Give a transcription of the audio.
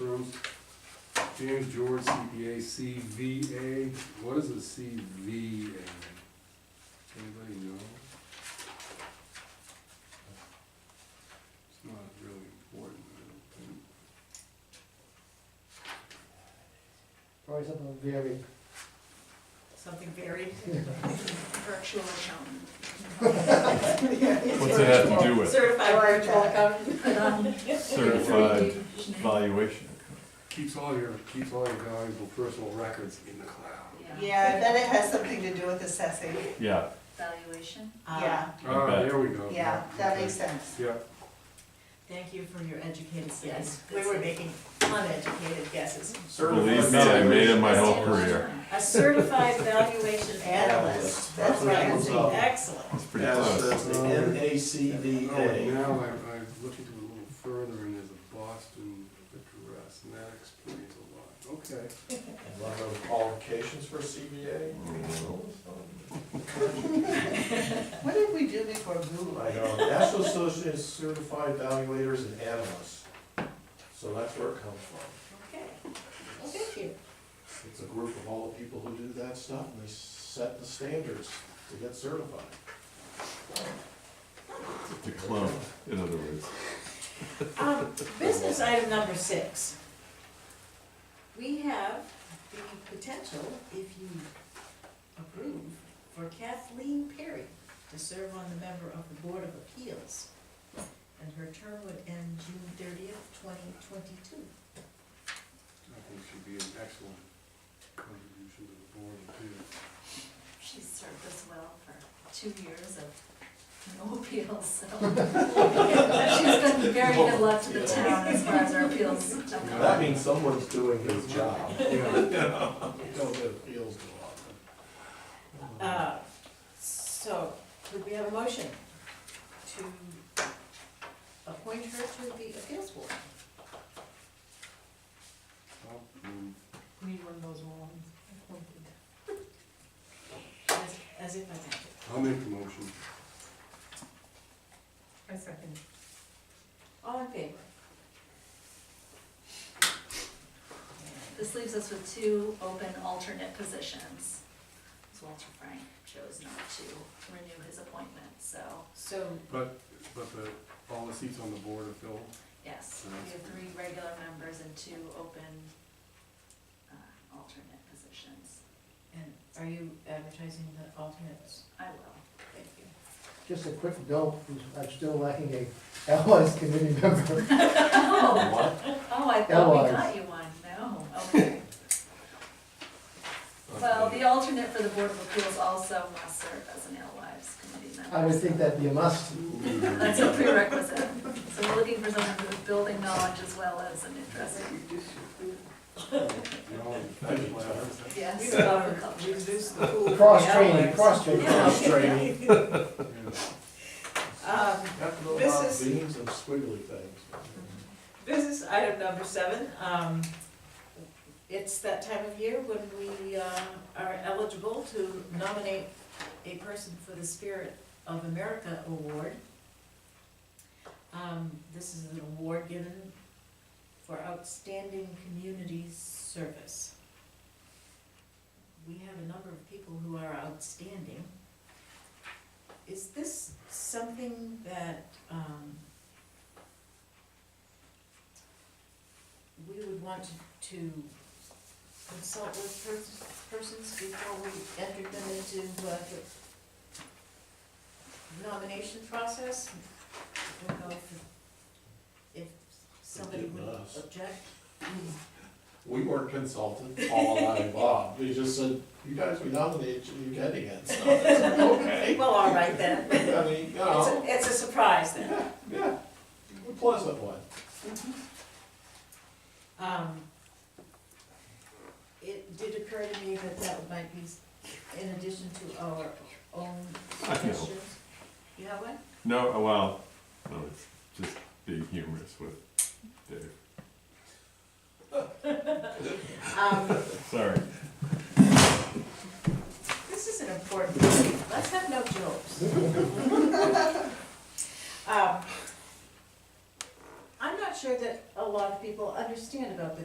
Rose. James George, CPA, CVA, what is a CVA? Anybody know? It's not really important, I don't think. Probably something very, Something varied. Virtual accountant. What's it have to do with Certified virtual accountant. certified valuation? Keeps all your, keeps all your valuable personal records in the cloud. Yeah, I bet it has something to do with assessing. Yeah, Valuation. Yeah, Ah, bet. there we go. yeah, that makes Okay. sense. Yeah, Thank you for your educated guess. Yes, we were making uneducated guesses. believe me, I made it my whole career. A certified valuation analyst. Analyst, that's what I'm saying. It's Excellent. pretty That's close. the Oh, NACDA. now I, I looked into it a little further and there's a Boston address and that explains a lot. Okay. One of those qualifications for CBA. Mm-hmm. What did we do before Google? I know, National Association of Certified Evaluators and Analysts. So that's where it comes from. Okay, well, thank you. It's a group of all the people who do that stuff, and they set the standards to get certified. It's a clone, in other words. Um, Business item number six. We have the potential, if you approve, for Kathleen Perry to serve on the member of the Board of Appeals. And her term would end June thirtieth, twenty twenty-two. I think she'd be an excellent contribution to the board too. She served us well for two years of no appeals, so. She's been very good luck to the town as far as our appeals. Yeah. That means someone's doing his job. Yeah, Don't get appeals too often. Uh, So, could we have a motion to appoint her to the appeals board? I'll move. We need one of those ones. As, as if I meant it. I'll make the motion. I second. All in favor? This leaves us with two open alternate positions. 'Cause Walter Frank chose not to renew his appointment, so, So, But, but the, all the seats on the board are filled. yes, we have three regular members and two open uh, alternate positions. and are you advertising the alternates? I will. Thank you. just a quick note, I'm still lacking a LS committee member. Oh, What? Oh, I thought we Allies. got you one, no, okay. Well, the alternate for the Board of Appeals also must serve as an Alewives committee member. I would think that'd be a must. That's a prerequisite, so we're looking for someone with building knowledge as well as an interest in, No, yes. We will local culture. Reduce the pool. for Cross the training, others. cross training. Frustrating. yeah. Um, Have to know This about is- beans and squiggly things. Business item number seven, um, it's that time of year when we, uh, are eligible to nominate a person for the Spirit of America Award. Um, this is an award given for outstanding community service. We have a number of people who are outstanding. Is this something that, um, we would want to- to consult with pers- persons before we entered them into uh, the nomination process? I don't know if- if somebody Forgive would us. object. We weren't consulted, Paul and I and Bob, they just said, you guys, we nominated you, you're getting it, so, it's like, okay. Well, all right then. I mean, you It's know, a, it's a surprise then. yeah, yeah, a pleasant one. Um, It did occur to me that that might be s- in addition to our own I know. suggestions. You have one? No, oh, well, no, it's just being humorous with Dave. Um, Sorry. This is an important, meeting. let's have no jokes. Um, I'm not sure that a lot of people under- understand about the